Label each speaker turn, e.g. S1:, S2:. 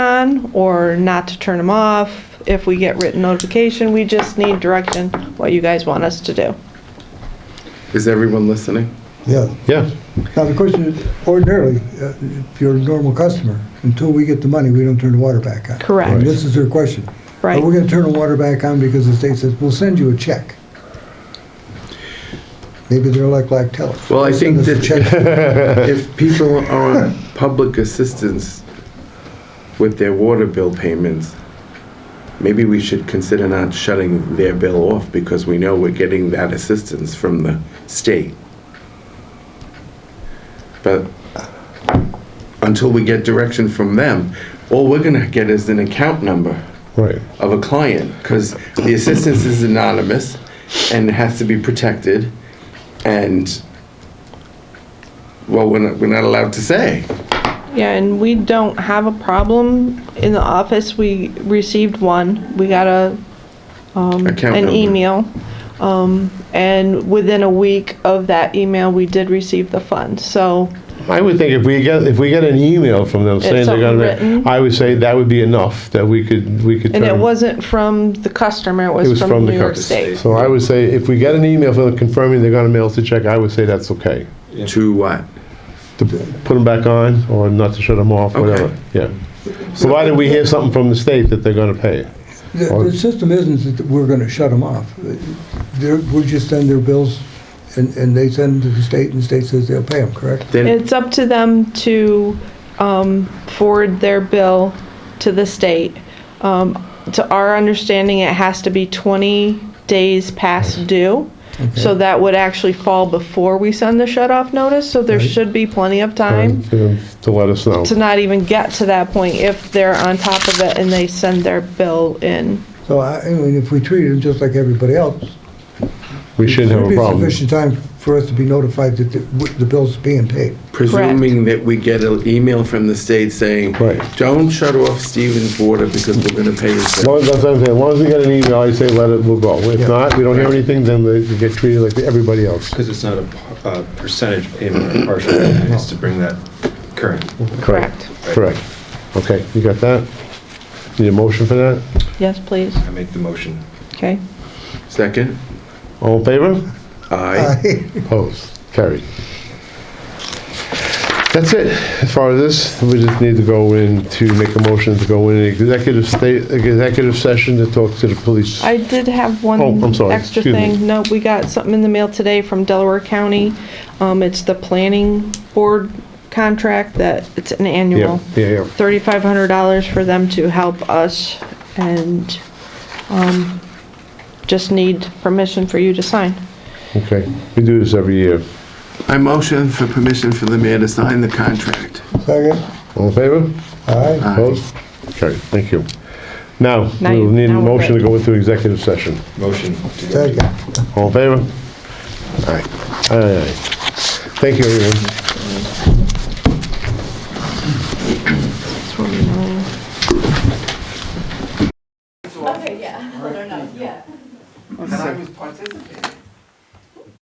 S1: on or not to turn them off. If we get written notification, we just need direction, what you guys want us to do.
S2: Is everyone listening?
S3: Yeah.
S4: Yeah.
S3: Now, the question is, ordinarily, uh, if you're a normal customer, until we get the money, we don't turn the water back on.
S1: Correct.
S3: And this is their question.
S1: Right.
S3: Are we gonna turn the water back on because the state says, we'll send you a check? Maybe they're like Lactellus.
S2: Well, I think
S3: Send us a check.
S2: If people are on public assistance with their water bill payments, maybe we should consider not shutting their bill off because we know we're getting that assistance from the state. But until we get direction from them, all we're gonna get is an account number
S4: Right.
S2: of a client because the assistance is anonymous and has to be protected and well we're not, we're not allowed to say
S1: Yeah, and we don't have a problem in the office. We received one. We got a, um,
S2: Account
S1: an
S2: number.
S1: email. Um, and within a week of that email, we did receive the funds. So,
S4: I would think if we get, if we get an email from them saying they're
S1: something
S4: gonna,
S1: written.
S4: I would say that would be enough, that we could, we could.
S1: and it
S4: turn-
S1: wasn't from the customer, it
S4: It
S1: was from New York State.
S4: So I would say if we get an email from them confirming they're gonna mail us a check, I would say that's okay.
S2: to what
S4: To put them back on or not to shut them off, whatever,
S2: Okay.
S4: yeah. Provided we hear something from the state that they're gonna pay.
S3: The, the system isn't that we're gonna shut them off. They're, we just send their bills and, and they send to the state and the state says they'll pay them, correct?
S2: then
S1: It's up to them to um, forward their bill to the state. Um, To our understanding, it has to be 20 days past due. So that would actually fall before we send the shut-off notice, so there should be plenty of time
S4: Um, To to let us know.
S1: to not even get to that point if they're on top of it and they send their bill in.
S3: So I, I mean, if we treat them just like everybody else,
S4: We shouldn't have a
S3: There'd
S4: problem.
S3: be sufficient time for us to be notified that the the bill's being paid.
S2: presuming that we get an email from the state saying
S4: Right.
S2: don't shut off steven's water because we're going to pay his
S4: As long
S2: bill
S4: as, that's what I'm saying, as long as we get an email, I say let it, we'll go. If
S3: Yeah.
S4: not, we don't hear anything, then they they get treated like everybody else.
S5: Because it's not a p- a percentage payment or partial payment, it's to bring that current.
S1: Correct.
S4: Correct. Okay, you got that? Need a motion for that?
S1: Yes, please.
S5: I make the motion.
S1: Okay.
S2: second
S4: All in favor?
S2: i
S4: Opposed? Carried. That's it. As far as this, we just need to go in to make a motion to go in an executive state, executive session to talk to the police.
S1: I did have
S4: Oh, I'm
S1: one
S4: sorry.
S1: extra
S4: Excuse me.
S1: thing. No, we got something in the mail today from Delaware County. Um, it's the planning board contract that, it's an
S4: Yeah,
S1: annual.
S4: yeah, yeah.
S1: Thirty-five hundred dollars for them to help us and, um, just need permission for you to sign.
S4: Okay, we do this every year.
S2: i motion for permission for the mayor to sign the contract
S3: Second,
S4: All in favor?
S3: all right.
S4: Opposed? Carried, thank you. Now,
S1: Now
S4: we'll
S1: you-
S4: need a
S1: now we're
S4: motion to
S1: good.
S4: go into executive session.
S5: Motion. to go to-
S3: Second.
S4: All in favor? All right, all right. Thank you, everyone.